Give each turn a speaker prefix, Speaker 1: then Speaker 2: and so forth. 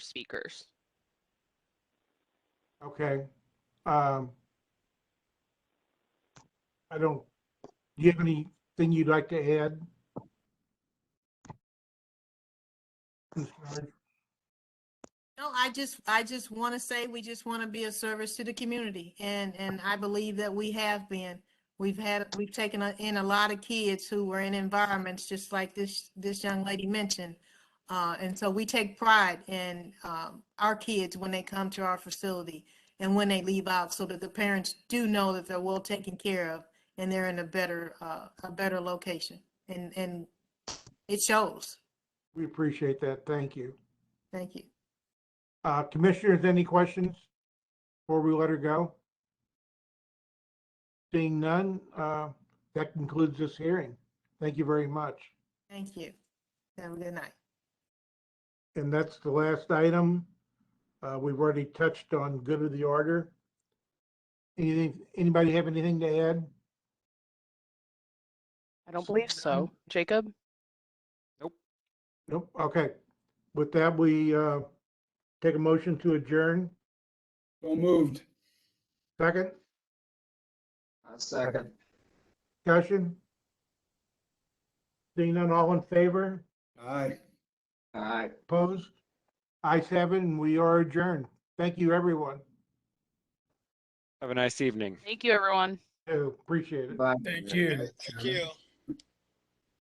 Speaker 1: speakers.
Speaker 2: Okay. Um, I don't, do you have anything you'd like to add? Ms. Bernard?
Speaker 3: No, I just, I just want to say, we just want to be a service to the community and, and I believe that we have been. We've had, we've taken a- in a lot of kids who were in environments just like this, this young lady mentioned. Uh, and so we take pride in, um, our kids when they come to our facility and when they leave out so that the parents do know that they're well taken care of and they're in a better, uh, a better location. And, and it shows.
Speaker 2: We appreciate that. Thank you.
Speaker 3: Thank you.
Speaker 2: Uh, Commissioners, any questions before we let her go? Seeing none, uh, that concludes this hearing. Thank you very much.
Speaker 3: Thank you. Have a good night.
Speaker 2: And that's the last item. Uh, We've already touched on good of the order. Anything, anybody have anything to add?
Speaker 1: I don't
Speaker 2: So
Speaker 1: believe
Speaker 2: none.
Speaker 1: so. Jacob?
Speaker 2: Nope, okay. With that, we uh, take a motion to adjourn.
Speaker 4: So moved.
Speaker 2: Second,
Speaker 5: A second.
Speaker 2: discussion? Seeing none, all in favor?
Speaker 4: Aye.
Speaker 5: All right.
Speaker 2: Opposed? Ayes have it, and we are adjourned. Thank you, everyone.
Speaker 6: Have a nice evening.
Speaker 1: Thank you, everyone.
Speaker 2: Appreciate it.
Speaker 5: Bye.
Speaker 7: Thank you. Thank you.